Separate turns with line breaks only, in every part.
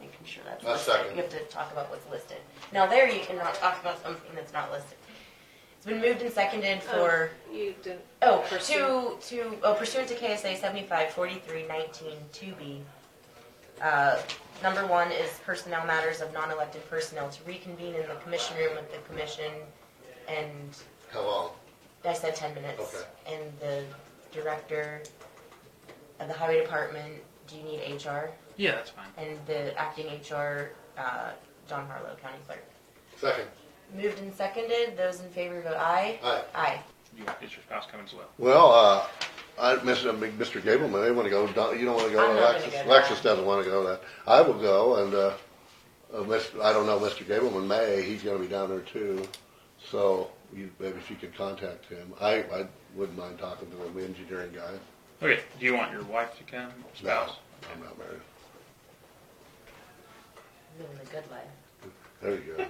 what's
I
listed.
second.
You have to talk about what's listed. Now there, you cannot talk about something that's not listed. It's been moved and seconded for,
You didn't.
oh,
pursue.
to, to, oh, pursuant to KSA seventy-five forty-three nineteen two B. Uh, number one is personnel matters of non-elected personnel to reconvene in the commission room with the commission and
How long?
I said ten minutes.
Okay.
And the director of the highway department, do you need HR?
Yeah, that's fine.
And the acting HR, uh, John Harlow, county clerk.
Second.
Moved and seconded, those in favor vote aye.
Aye.
Aye.
You, is your spouse coming as well?
Well, uh, I, Mr. Big- Mr. Gableman, they wanna go, Don- you don't wanna go,
I'm not gonna
Alexis,
go to
Alexis
that.
doesn't wanna go that. I will go and, uh, uh, Mr., I don't know, Mr. Gableman may, he's gonna be down there too. So you, maybe if you could contact him, I, I wouldn't mind talking to him, the engineering guy.
Okay, do you want your wife to come?
No,
Spouse?
I'm not married.
Living the good life.
There you go.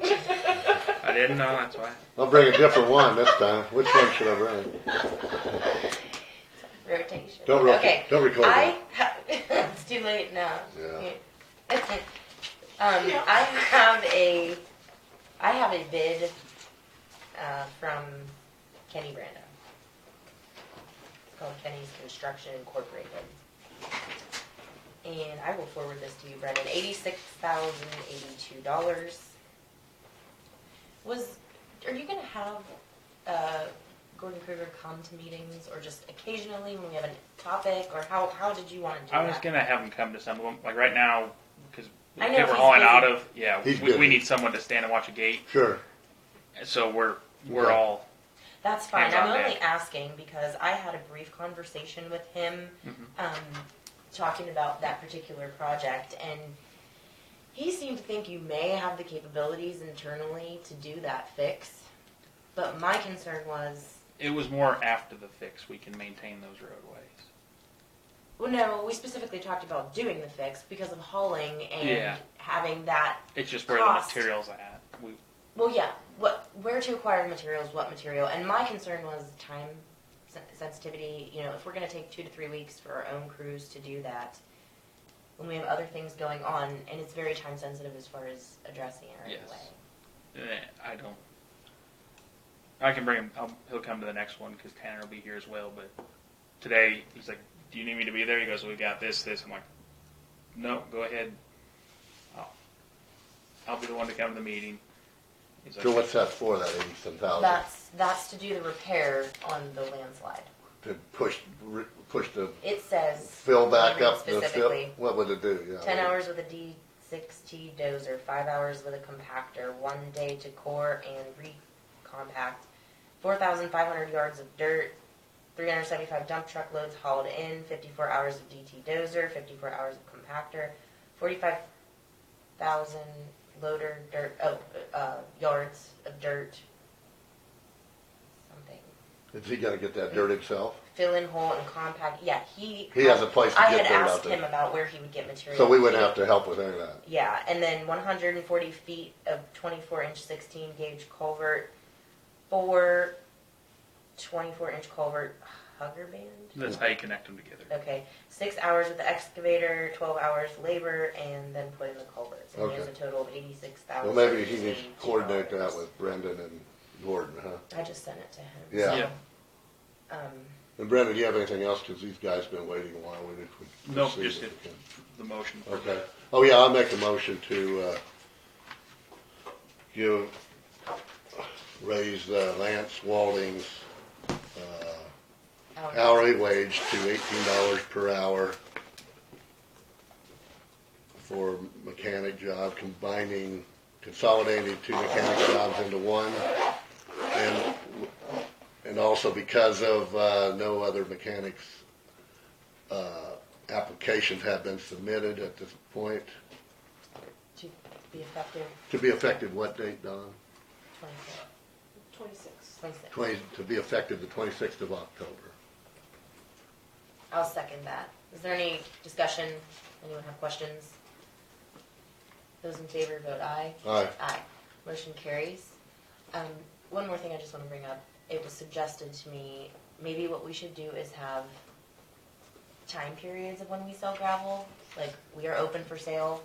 I didn't know, that's why.
I'll bring a different one this time. Which one should I bring?
Rotation.
Don't rock it.
Okay.
Don't record
I, ha- it's too late now.
Yeah.
Um, I have a, I have a bid, uh, from Kenny Brando. It's called Kenny's Construction Incorporated. And I will forward this to you, Brendan, eighty-six thousand eighty-two dollars. Was, are you gonna have, uh, Gordon Kruger come to meetings or just occasionally when we have a topic or how, how did you wanna do that?
I was gonna have him come to some of them, like right now, because
I know
if we're
he's
hauling
busy.
out of, yeah,
He's
we,
busy.
we need someone to stand and watch a gate.
Sure.
So we're we're
Okay.
all
That's fine.
Hands
I'm
on
only
deck.
asking because I had a brief conversation with him,
Mhm.
um, talking about that particular project, and he seemed to think you may have the capabilities internally to do that fix. But my concern was,
It was more after the fix we can maintain those roadways.
well, no, we specifically talked about doing the fix because of hauling and
Yeah.
having that.
It's just where
Cost.
the materials at. We,
Well, yeah, what where to acquire materials, what material, and my concern was time sen- sensitivity. You know, if we're going to take two to three weeks for our own crews to do that, when we have other things going on, and it's very time sensitive as far as addressing it right
Yes.
away.
eh, I don't. I can bring him. I'll, he'll come to the next one because Tanner will be here as well. But today he's like, "Do you need me to be there?" He goes, "We got this, this." I'm like, "No, go ahead. I'll, I'll be the one to come to the meeting." He's like,
So what's that for, that eighty-seven thousand?
That's that's to do the repair on the landslide.
To push, re- push the,
It says
fill back
read
up the fill?
specifically.
What would it do? Yeah.
Ten hours with a D six T dozer, five hours with a compactor, one day to core and recompact, four thousand five hundred yards of dirt, three hundred seventy-five dump truck loads hauled in, fifty-four hours of DT dozer, fifty-four hours of compactor, forty-five thousand loader dirt, oh, uh, yards of dirt. Something.
Is he gonna get that dirt himself?
Fill in hole and compact, yeah, he.
He has a place to
I
get
had
dirt out
asked
there.
him about where he would get material.
So we wouldn't
He-
have to help with any of that.
yeah, and then 140 feet of 24 inch 16 gauge culvert, four 24 inch culvert hugger band.
"That's how you connect them together."
Okay, six hours with the excavator, 12 hours labor, and then put in the culverts. And he has a
Okay.
total of 86,000.
Well, maybe he needs to coordinate that with Brendan and Gordon, huh?
I just sent it to him.
Yeah.
Yeah.
Um,
And Brendan, do you have anything else? Cause these guys been waiting a while. We need to.
Nope,
proceed
just
if
it.
we can.
The motion. For
Okay. Oh, yeah, I'll make a motion to, uh, give, raise uh, Lance Walding's, uh,
hourly.
hourly wage to eighteen dollars per hour for mechanic job, combining, consolidating two mechanic jobs into one. And, and also because of, uh, no other mechanics, uh, applications have been submitted at this point.
To be effective,
To be effective what date, Don?
26.
Twenty-six.
26.
Twenty, to be effective the twenty-sixth of October.
I'll second that. Is there any discussion? Anyone have questions? Those in favor vote aye.
Aye.
Aye. Motion carries. Um, one more thing I just wanna bring up. It was suggested to me, maybe what we should do is have time periods of when we sell gravel. Like, we are open for sale